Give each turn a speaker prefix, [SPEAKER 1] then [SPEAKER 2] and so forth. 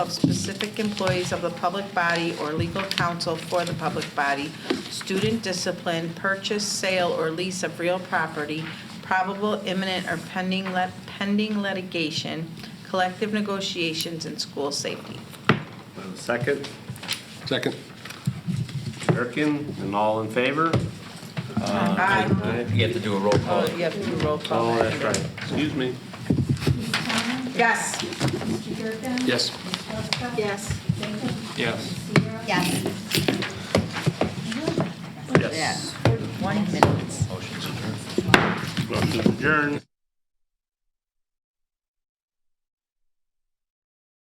[SPEAKER 1] of specific employees of the public body or legal counsel for the public body, student discipline, purchase, sale, or lease of real property, probable imminent or pending, lit- pending litigation, collective negotiations, and school safety.
[SPEAKER 2] I have a Second,
[SPEAKER 3] Second.
[SPEAKER 2] Durkin, and all in favor?
[SPEAKER 1] Aye.
[SPEAKER 2] Aye.
[SPEAKER 4] You have to do a roll call.
[SPEAKER 1] Oh, you have to roll call.
[SPEAKER 2] Oh, that's right, excuse me.
[SPEAKER 5] Ms. Conlon?
[SPEAKER 1] Yes.
[SPEAKER 5] Mr. Durkin?
[SPEAKER 3] Yes.
[SPEAKER 5] Ms. Prescott?
[SPEAKER 6] Yes.
[SPEAKER 5] Jacob?
[SPEAKER 3] Yes.
[SPEAKER 5] Sierra?
[SPEAKER 6] Yes.
[SPEAKER 2] Yes.
[SPEAKER 1] One minute.
[SPEAKER 2] Motion to adjourn.